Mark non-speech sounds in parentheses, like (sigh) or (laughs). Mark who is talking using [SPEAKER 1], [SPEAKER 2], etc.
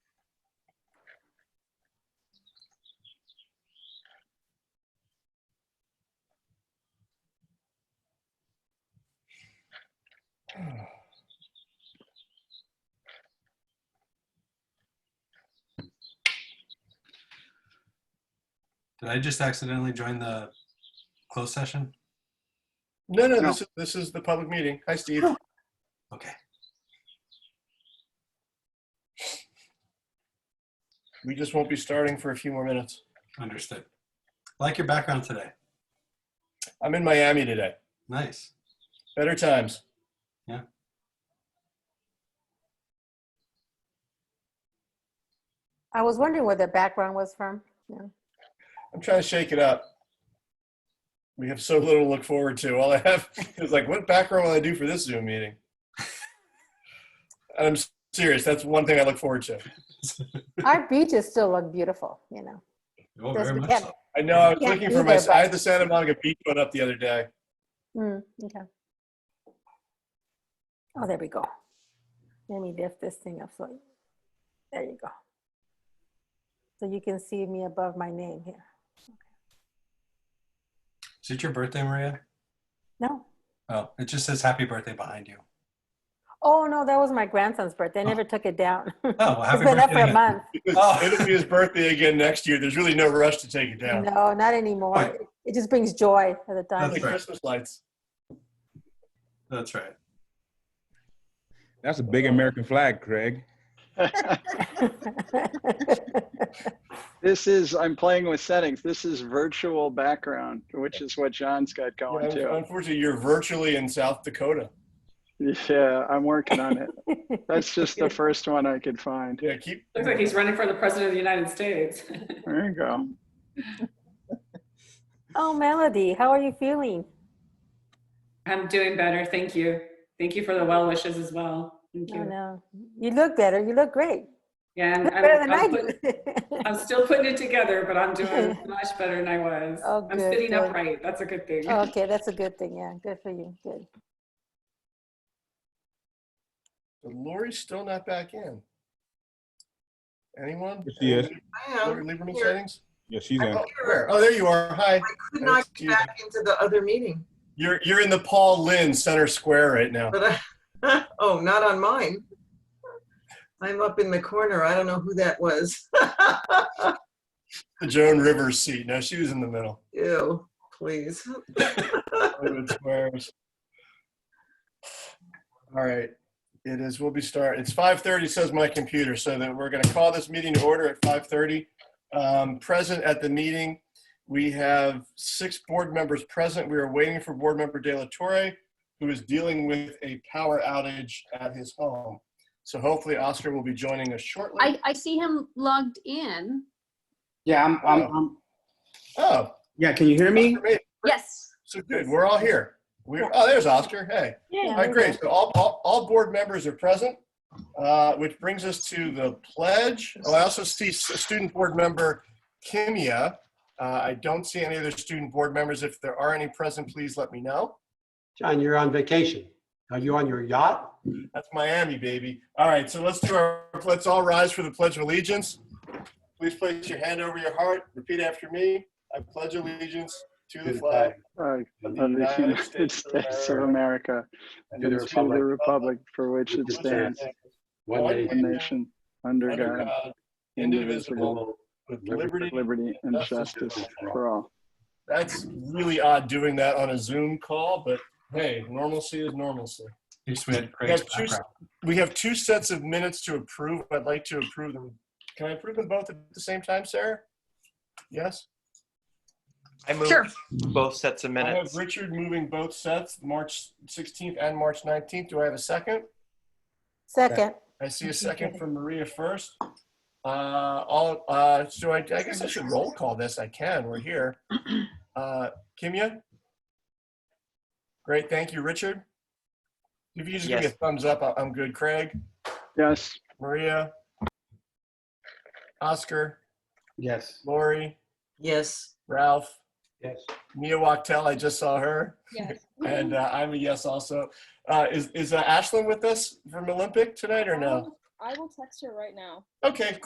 [SPEAKER 1] Did I just accidentally join the closed session?
[SPEAKER 2] No, no,
[SPEAKER 3] No.
[SPEAKER 2] this is, this is the public meeting. Hi, Steve.
[SPEAKER 1] Okay.
[SPEAKER 2] We just won't be starting for a few more minutes.
[SPEAKER 1] Understood. Like your background today.
[SPEAKER 2] I'm in Miami today.
[SPEAKER 1] Nice. (laughs)
[SPEAKER 2] Better times.
[SPEAKER 1] Yeah.
[SPEAKER 4] I was wondering where the background was from. Yeah.
[SPEAKER 2] I'm trying to shake it up. We have so little to look forward to. All I have (laughs) is like, what background will I do for this Zoom meeting? And I'm s- serious. That's one thing I look forward to.
[SPEAKER 1] (laughs)
[SPEAKER 4] Our beaches still look beautiful, you know.
[SPEAKER 1] Oh,
[SPEAKER 4] Yes,
[SPEAKER 1] very
[SPEAKER 4] we
[SPEAKER 1] much
[SPEAKER 4] can.
[SPEAKER 1] so.
[SPEAKER 2] I know I was
[SPEAKER 4] Yeah,
[SPEAKER 2] looking
[SPEAKER 4] me
[SPEAKER 2] for my,
[SPEAKER 4] too,
[SPEAKER 2] I
[SPEAKER 4] but-
[SPEAKER 2] had the Santa Monica Beach one up the other day.
[SPEAKER 4] Mm, okay. Oh, there we go. Let me lift this thing up so there you go. So you can see me above my name here.
[SPEAKER 1] Is it your birthday, Maria?
[SPEAKER 4] No.
[SPEAKER 1] Oh, it just says happy birthday behind you.
[SPEAKER 4] Oh no, that was my grandson's birthday. I never took it down. (laughs) it's
[SPEAKER 1] Oh, well, Oh. happy
[SPEAKER 4] been up for
[SPEAKER 1] birthday.
[SPEAKER 4] a
[SPEAKER 1] then.
[SPEAKER 4] month.
[SPEAKER 1] Oh.
[SPEAKER 2] It'll be his birthday again next year. There's really no rush to take it down.
[SPEAKER 4] No, not anymore.
[SPEAKER 1] Right.
[SPEAKER 4] It- It just brings joy at the time.
[SPEAKER 1] That's
[SPEAKER 2] Like
[SPEAKER 1] right.
[SPEAKER 2] Christmas lights.
[SPEAKER 1] That's right.
[SPEAKER 5] That's a big American flag, Craig.
[SPEAKER 3] This is, I'm playing with settings. This is virtual background, which is what John's got going
[SPEAKER 2] Yeah,
[SPEAKER 3] too.
[SPEAKER 2] Unfortunately, you're virtually in South Dakota.
[SPEAKER 3] Yeah, I'm working on it. That's just the first one I could find.
[SPEAKER 2] Yeah, keep.
[SPEAKER 6] Looks like he's running for the president of the United States. (laughs)
[SPEAKER 3] There you go.
[SPEAKER 4] (laughs) oh, Melody, how are you feeling?
[SPEAKER 6] I'm doing better. Thank you. Thank you for the well wishes as well. Thank
[SPEAKER 4] Oh, No,
[SPEAKER 6] you.
[SPEAKER 4] no. You look better. You look great.
[SPEAKER 6] Yeah, I'm,
[SPEAKER 4] Look
[SPEAKER 6] I'm,
[SPEAKER 4] better than I
[SPEAKER 6] I'm, put-
[SPEAKER 4] do.
[SPEAKER 6] I'm still putting it together, but
[SPEAKER 4] (laughs)
[SPEAKER 6] I'm doing much better than I was.
[SPEAKER 4] Oh,
[SPEAKER 6] I'm
[SPEAKER 4] good,
[SPEAKER 6] sitting
[SPEAKER 4] good.
[SPEAKER 6] upright. That's a good thing.
[SPEAKER 4] (laughs) Oh, okay, that's a good thing. Yeah, good for you. Good.
[SPEAKER 2] But Lori's still not back in. Anyone?
[SPEAKER 5] Yes, she is.
[SPEAKER 7] I
[SPEAKER 2] Lori
[SPEAKER 7] am.
[SPEAKER 2] Lieberman
[SPEAKER 7] Here.
[SPEAKER 2] settings?
[SPEAKER 5] Yeah, she's in.
[SPEAKER 2] Oh, where? Oh, there you are. Hi.
[SPEAKER 7] Could not
[SPEAKER 2] Excuse
[SPEAKER 7] get back into the other meeting,
[SPEAKER 2] You're, you're in the Paul Lynn Center Square right now.
[SPEAKER 7] but I, (laughs) oh, not on mine. I'm up in the corner. I don't know who that was. (laughs)
[SPEAKER 2] The Joan Rivers seat. No, she was in the middle.
[SPEAKER 7] Ew, please.
[SPEAKER 2] Hollywood Squares. All right, it is, we'll be start, it's 5:30 says my computer, so that we're gonna call this meeting to order at 5:30. Um, Present at the meeting, we have six board members present. We are waiting for Board Member De La Torre, who is dealing with a power outage at his home. So hopefully Oscar will be joining us shortly.
[SPEAKER 8] I, I see him logged in.
[SPEAKER 9] Yeah, I'm, I'm,
[SPEAKER 2] Oh.
[SPEAKER 9] I'm,
[SPEAKER 2] Oh,
[SPEAKER 9] yeah, can you hear me?
[SPEAKER 2] Oscar made it.
[SPEAKER 8] Yes.
[SPEAKER 2] so good, we're all here. We're, oh, there's Oscar, hey.
[SPEAKER 4] Yeah,
[SPEAKER 2] All right,
[SPEAKER 4] we
[SPEAKER 2] great. So all, all, all board members are present, uh, which brings us to the pledge. Oh, I also see s- student board member Kimya. Uh, I don't see any other student board members. If there are any present, please let me know.
[SPEAKER 10] John, you're on vacation. Are you on your yacht?
[SPEAKER 2] That's Miami, baby. All right, so let's do our, let's all rise for the Pledge of Allegiance. Please place your hand over your heart. Repeat after me. I pledge allegiance to the flag
[SPEAKER 3] Uh,
[SPEAKER 2] of
[SPEAKER 3] Of the United States of America
[SPEAKER 2] and
[SPEAKER 3] and to the republic for which it
[SPEAKER 10] which it
[SPEAKER 3] stands,
[SPEAKER 10] stands,
[SPEAKER 2] One
[SPEAKER 10] One nation,
[SPEAKER 2] nation,
[SPEAKER 3] one nation, under
[SPEAKER 2] under
[SPEAKER 3] God,
[SPEAKER 2] God,
[SPEAKER 3] indivisible,
[SPEAKER 2] indivisible, with liberty
[SPEAKER 3] with liberty and justice for all.
[SPEAKER 2] That's really odd doing that on a Zoom call, but hey, normalcy is normalcy.
[SPEAKER 1] You just had Craig's
[SPEAKER 2] Yes, choose-
[SPEAKER 1] background.
[SPEAKER 2] We have two sets of minutes to approve. I'd like to approve them. Can I approve them both at the same time, Sarah? Yes?
[SPEAKER 11] I moved
[SPEAKER 8] Sure.
[SPEAKER 11] both sets of
[SPEAKER 2] I have
[SPEAKER 11] minutes.
[SPEAKER 2] Richard moving both sets, March 16th and March 19th. Do I have a second?
[SPEAKER 4] Second.
[SPEAKER 2] I see a second from Maria first. Uh, all, uh, so I, I guess I should roll call this. I can, we're here. Uh, Kimya? Great, thank you, Richard. If you just give me a
[SPEAKER 11] Yes.
[SPEAKER 2] thumbs up, I- I'm good. Craig,
[SPEAKER 3] Yes,
[SPEAKER 2] Maria, Oscar,
[SPEAKER 10] Yes.
[SPEAKER 2] Lori,
[SPEAKER 7] Yes,
[SPEAKER 2] Ralph,
[SPEAKER 10] Yes.
[SPEAKER 2] Mia Wachtel, I just saw her,
[SPEAKER 8] Yes.
[SPEAKER 2] and uh, I'm a yes also. Uh, is is uh, Ashlyn with us from Olympic tonight or no?
[SPEAKER 8] I will text her right now.
[SPEAKER 2] Okay,